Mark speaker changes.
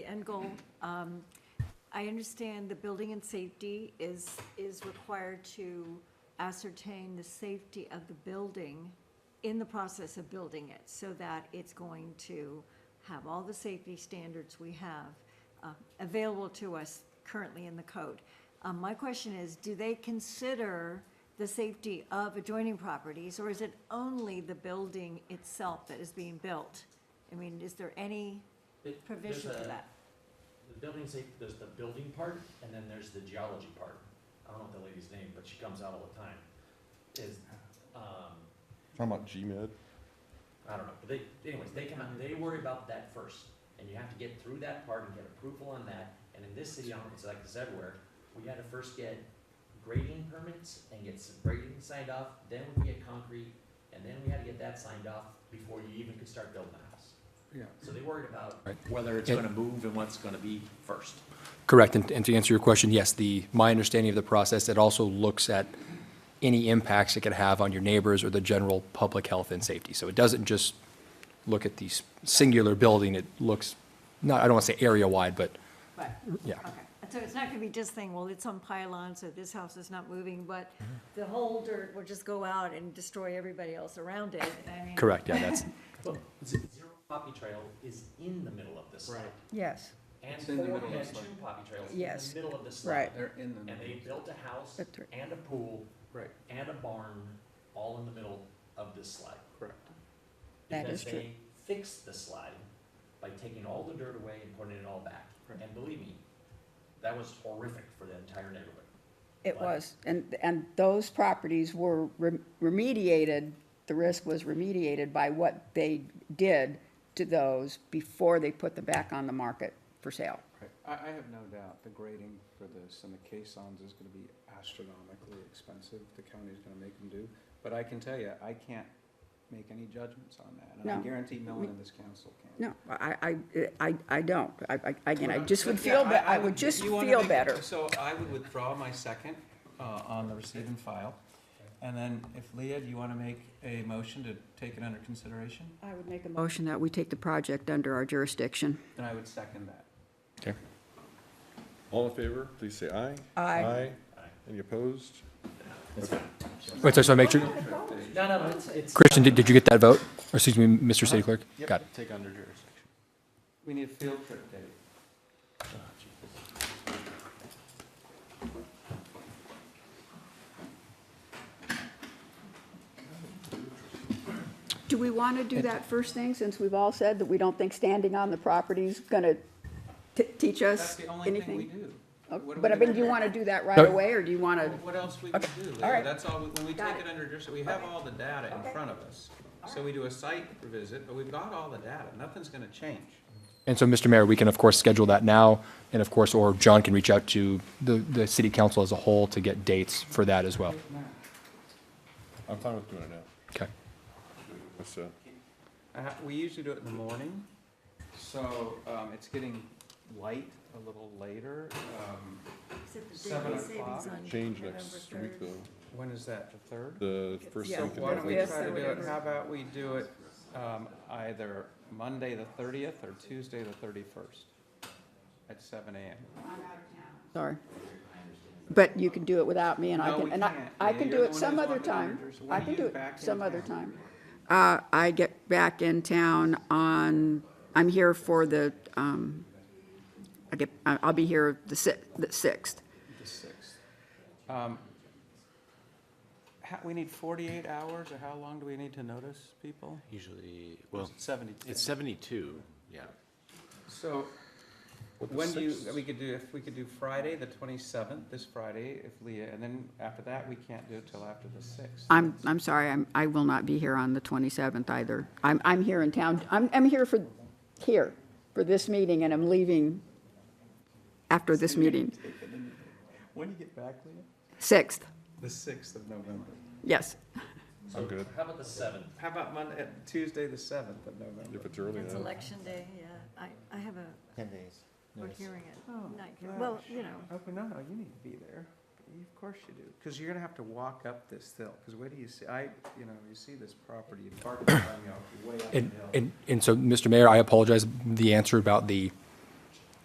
Speaker 1: end goal. Um, I understand the building and safety is, is required to ascertain the safety of the building in the process of building it, so that it's going to have all the safety standards we have uh, available to us currently in the code. Um, My question is, do they consider the safety of adjoining properties, or is it only the building itself that is being built? I mean, is there any
Speaker 2: It- there's
Speaker 1: provision for
Speaker 2: a-
Speaker 1: that?
Speaker 2: The building safe, there's the building part, and then there's the geology part. I don't know the lady's name, but she comes out all the time. Is, um,
Speaker 3: Talking about GMed?
Speaker 2: I don't know, but they, anyways, they come out, and they worry about that first. And you have to get through that part and get approval on that, and in this city, I don't know, it's like this everywhere, we had to first get grading permits and get some grading signed off, then we get concrete, and then we had to get that signed off before you even could start building the house.
Speaker 3: Yeah.
Speaker 2: So they worried about
Speaker 4: Right.
Speaker 2: whether it's
Speaker 4: It-
Speaker 2: gonna move and what's gonna be first.
Speaker 4: Correct, and and to answer your question, yes, the, my understanding of the process, it also looks at any impacts it could have on your neighbors or the general public health and safety. So it doesn't just look at the s- singular building, it looks, not, I don't want to say area-wide, but,
Speaker 1: Right,
Speaker 4: yeah.
Speaker 1: okay. So it's not gonna be just saying, well, it's on pylon, so this house is not moving, but the whole dirt will just go out and destroy everybody else around it. I mean,
Speaker 4: Correct, yeah, that's,
Speaker 2: Well, z- Zero Poppy Trail is in the middle of this site.
Speaker 5: Yes,
Speaker 2: And
Speaker 6: It's in the
Speaker 2: Ford
Speaker 6: middle of
Speaker 2: had
Speaker 6: the
Speaker 2: two
Speaker 6: site.
Speaker 2: Poppy Trails
Speaker 5: Yes.
Speaker 2: in the middle of the site.
Speaker 5: Right.
Speaker 6: They're in the.
Speaker 2: And they built a house
Speaker 5: That's right.
Speaker 2: and a pool
Speaker 6: Right,
Speaker 2: and a barn all in the middle of this slide.
Speaker 6: correct.
Speaker 5: That is
Speaker 2: Because they fixed the slide by taking all the dirt away and putting it all back.
Speaker 6: Right.
Speaker 2: And believe me, that was horrific for the entire neighborhood.
Speaker 5: it
Speaker 2: Why?
Speaker 5: was. And, and those properties were rem- remediated, the risk was remediated by what they did to those before they put them back on the market for sale.
Speaker 6: Right. I, I have no doubt the grading for this and the caissons is gonna be astronomically expensive, the county's gonna make them do. But I can tell you, I can't make any judgments on that, and I
Speaker 5: No.
Speaker 6: guarantee no one in this council can.
Speaker 5: No, I, I, I, I don't. I, I- again, I just would
Speaker 6: Yeah,
Speaker 5: feel, be- I would just
Speaker 6: you wanna
Speaker 5: feel
Speaker 6: make-
Speaker 5: better.
Speaker 6: So I would withdraw my second, uh, on the receive and file. And then if Leah, do you wanna make a motion to take it under consideration?
Speaker 5: I would make a motion that we take the project under our jurisdiction.
Speaker 6: Then I would second that.
Speaker 4: okay.
Speaker 3: All in favor, please say aye.
Speaker 5: Aye.
Speaker 2: Aye.
Speaker 3: Any opposed?
Speaker 4: Wait, so so make sure,
Speaker 2: No, no, it's, it's.
Speaker 4: Christian, did did you get that vote? Or excuse me, Mr. City Clerk? Got it.
Speaker 3: Take under jurisdiction.
Speaker 6: We need a field trip, Dave.
Speaker 5: Do we want to do that first thing, since we've all said that we don't think standing on the property's gonna t- teach
Speaker 6: That's
Speaker 5: us
Speaker 6: the only thing we
Speaker 5: anything?
Speaker 6: do.
Speaker 5: Oh,
Speaker 6: What
Speaker 5: But I
Speaker 6: we
Speaker 5: mean, do you want to do that right
Speaker 4: No.
Speaker 5: away, or do you want to?
Speaker 6: What else we can do,
Speaker 5: all
Speaker 6: Leah,
Speaker 5: right.
Speaker 6: that's all, when we
Speaker 5: Got
Speaker 6: take
Speaker 5: it.
Speaker 6: it under, juris- we have all the data
Speaker 5: Okay.
Speaker 6: in front of us. So we do a site visit, but we've got all the data, nothing's gonna change.
Speaker 4: And so, Mr. Mayor, we can, of course, schedule that now, and of course, or John can reach out to the, the city council as a whole to get dates for that as well.
Speaker 3: I'm fine with doing it now.
Speaker 4: Okay.
Speaker 3: That's, uh,
Speaker 6: Uh, we usually do it in the morning, so, um, it's getting light a little later, um,
Speaker 1: Except the
Speaker 6: Seven
Speaker 1: daylight savings
Speaker 6: o'clock.
Speaker 1: on
Speaker 3: change
Speaker 1: November
Speaker 3: next
Speaker 1: 3rd.
Speaker 3: week though,
Speaker 6: when is that, the third?
Speaker 3: the first
Speaker 1: Yeah.
Speaker 6: So
Speaker 3: week in
Speaker 6: why don't we
Speaker 3: November.
Speaker 6: try to do it,
Speaker 5: Yes.
Speaker 6: how about we do it, um, either Monday the thirtieth or Tuesday the thirty-first at seven AM?
Speaker 5: Sorry. But you can do it without me, and I
Speaker 6: No,
Speaker 5: can,
Speaker 6: we
Speaker 5: and I,
Speaker 6: can't.
Speaker 5: I
Speaker 6: Yeah,
Speaker 5: can
Speaker 6: you're
Speaker 5: do
Speaker 6: the
Speaker 5: it
Speaker 6: one
Speaker 5: some
Speaker 6: who's
Speaker 5: other
Speaker 6: on the
Speaker 5: time.
Speaker 6: managers.
Speaker 5: I
Speaker 6: When are
Speaker 5: can
Speaker 6: you
Speaker 5: do it
Speaker 6: back in
Speaker 5: some other
Speaker 6: town?
Speaker 5: time. Uh, I get back in town on, I'm here for the, um, I get, I- I'll be here the sixth, the sixth.
Speaker 6: The sixth. Um, How, we need forty-eight hours, or how long do we need to notice people?
Speaker 7: Usually,
Speaker 6: Or is
Speaker 7: well,
Speaker 6: it Seventy-two.
Speaker 7: it's 72, yeah.
Speaker 6: So, when do you, we could do, if we could do Friday, the twenty-seventh, this Friday, if Leah, and then after that, we can't do it till after the sixth.
Speaker 5: I'm, I'm sorry, I'm, I will not be here on the twenty-seventh either. I'm, I'm here in town, I'm, I'm here for, here, for this meeting, and I'm leaving after this meeting.
Speaker 6: When do you get back, Leah?
Speaker 5: Sixth,
Speaker 6: The sixth of November.
Speaker 5: yes.
Speaker 3: I'm good,
Speaker 2: How about the seventh?
Speaker 6: How about Monday, Tuesday, the seventh of November?
Speaker 3: if it's early
Speaker 1: It's
Speaker 3: enough.
Speaker 1: election day, yeah. I, I have a,
Speaker 7: Ten days.
Speaker 1: we're hearing it.
Speaker 6: Oh,
Speaker 1: Not here. Well,
Speaker 6: gosh.
Speaker 1: you know,
Speaker 6: Oh, no, no, you need to be there. You- Of course you do, because you're gonna have to walk up this hill, because where do you see, I, you know, you see this property, you park it, you know, way up the
Speaker 4: And,
Speaker 6: hill.
Speaker 4: and, and so, Mr. Mayor, I apologize, the answer about the